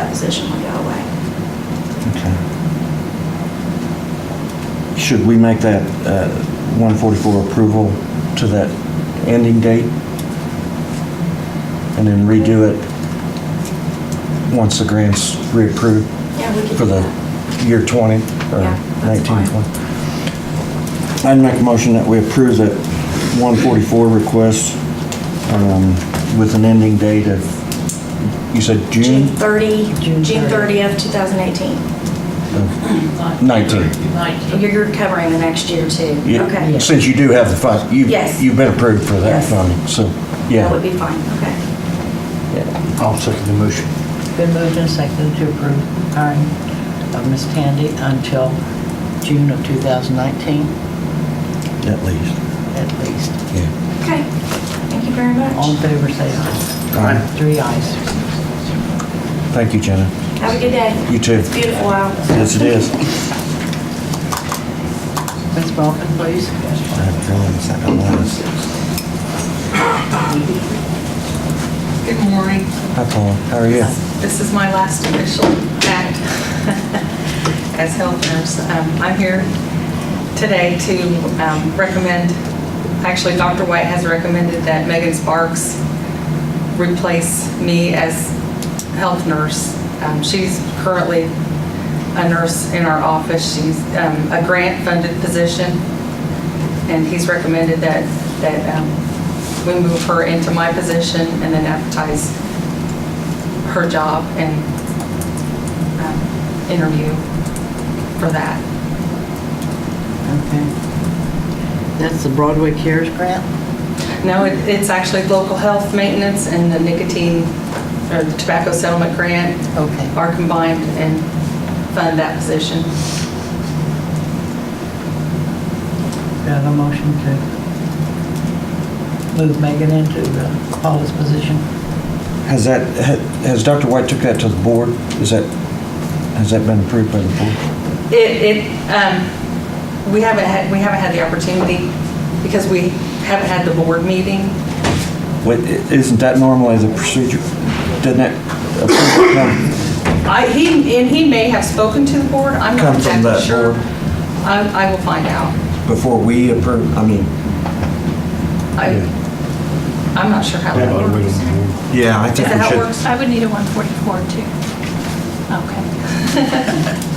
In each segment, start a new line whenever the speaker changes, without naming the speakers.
position will go away.
Okay. Should we make that uh, 144 approval to that ending date? And then redo it once the grant's reapproved
Yeah, we could
for
do
the
that.
year 20 or
Yeah, that's
19,
fine.
20? I'd make a motion that we approve that 144 request um, with an ending date of, you said
June
June
30,
June
June
30.
30th, 2018.
of 19.
19.
You're, you're covering the next year too?
Yeah,
Okay.
Yes.
Since you do have the fund, you've,
Yes.
you've been approved for that
Yes.
funding, so,
That would
yeah.
be fine, okay.
I'll second the motion.
Been moved and seconded to approve hiring of Ms. Tandy until June of 2019,
At least,
at least.
yeah.
Okay, thank you very
All in
much.
favor, say aye.
All right,
Three ayes.
thank you, Jenna.
Have a good day.
You too.
It's beautiful out.
Yes, it is.
Ms. Balkin, please.
I have feelings, I don't want this.
Good morning.
Hi, Paul, how are you?
This is my last official act as health nurse. Um, I'm here today to um, recommend, actually, Dr. White has recommended that Megan Sparks replace me as health nurse. Um, She's currently a nurse in our office. She's um, a grant-funded position. And he's recommended that, that um, we move her into my position and then advertise her job and um, interview for that.
Okay. That's the Broadway Cares Grant?
No, it- it's actually local health maintenance and the nicotine, or the tobacco settlement grant
Okay.
are combined and fund that position.
Do I have a motion to move Megan into the Paula's position?
Has that, ha- has Dr. White took that to the board? Is that, has that been approved by the board?
It, it, um, we haven't had, we haven't had the opportunity because we haven't had the board meeting.
Wait, i- isn't that normally the procedure? Doesn't that approval come?
I, he, and he may have spoken to the board, I'm
Come
not
from
exactly
that
sure.
board.
I, I will find out.
Before we approve, I mean,
I, I'm not sure how that works. Is
yeah, I think
that
we
how it
should.
works?
I would need a 144 too. Okay.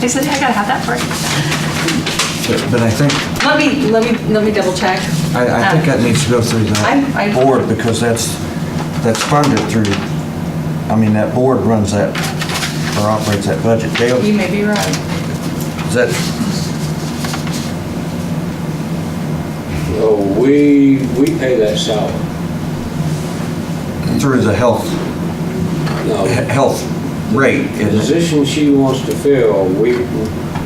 I said, I gotta have that part.
But but I think,
Let me, let me, let me double check. Uh,
I, I think that needs to go through
I-
the
I-
board because that's, that's funded through, I mean, that board runs that, or operates that budget. Dale,
You may be right.
is that,
Oh, we, we pay that salary.
through the health,
No,
he- health rate,
the
isn't it?
position she wants to fill, we,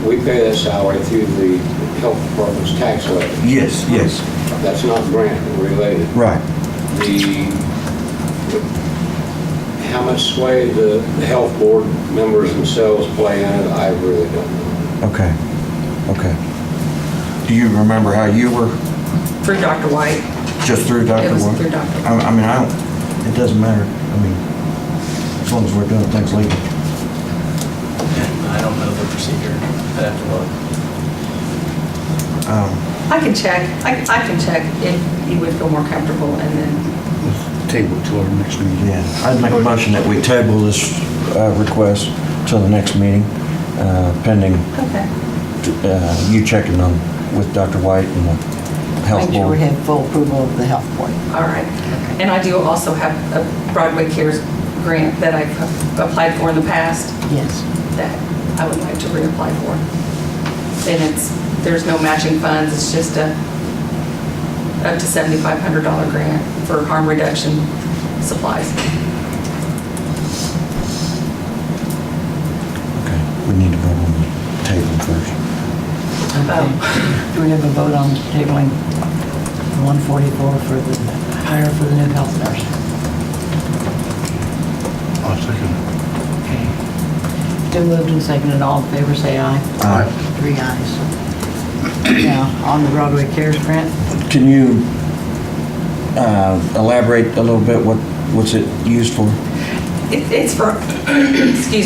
we pay that salary through the health department's tax levy.
Yes, yes,
That's not grant related.
right.
The, how much sway the the health board members themselves play in it, I really don't know.
Okay, okay. Do you remember how you were,
Through Dr. White.
just through Dr.
It was
Warren?
through Dr.
I I mean, I don't, it doesn't matter. I mean, as long as we're doing things legally.
I don't know the procedure. I'd have to look.
Um,
I can check, I, I can check if you would feel more comfortable and then,
Table to our next meeting.
Yeah, I'd make a motion that we table this uh, request till the next meeting, uh, pending
okay.
uh, you checking on with Dr. White and the health
Make sure we
board.
have full approval of the health board.
All right. And I do also have a Broadway Cares grant that I've applied for in the past
Yes.
that I would like to reapply for. And it's, there's no matching funds, it's just a up to $7,500 grant for harm reduction supplies.
Okay, We need to vote on the table first.
Okay. Um, Do we have a vote on tabling 144 for the hire for the new health nurse?
I'll second.
Okay. Been moved and seconded, all in favor, say aye.
Aye.
Three ayes. Now, on the Broadway Cares Grant,
Can you uh, elaborate a little bit what, what's it used for?
It- It's for, excuse me.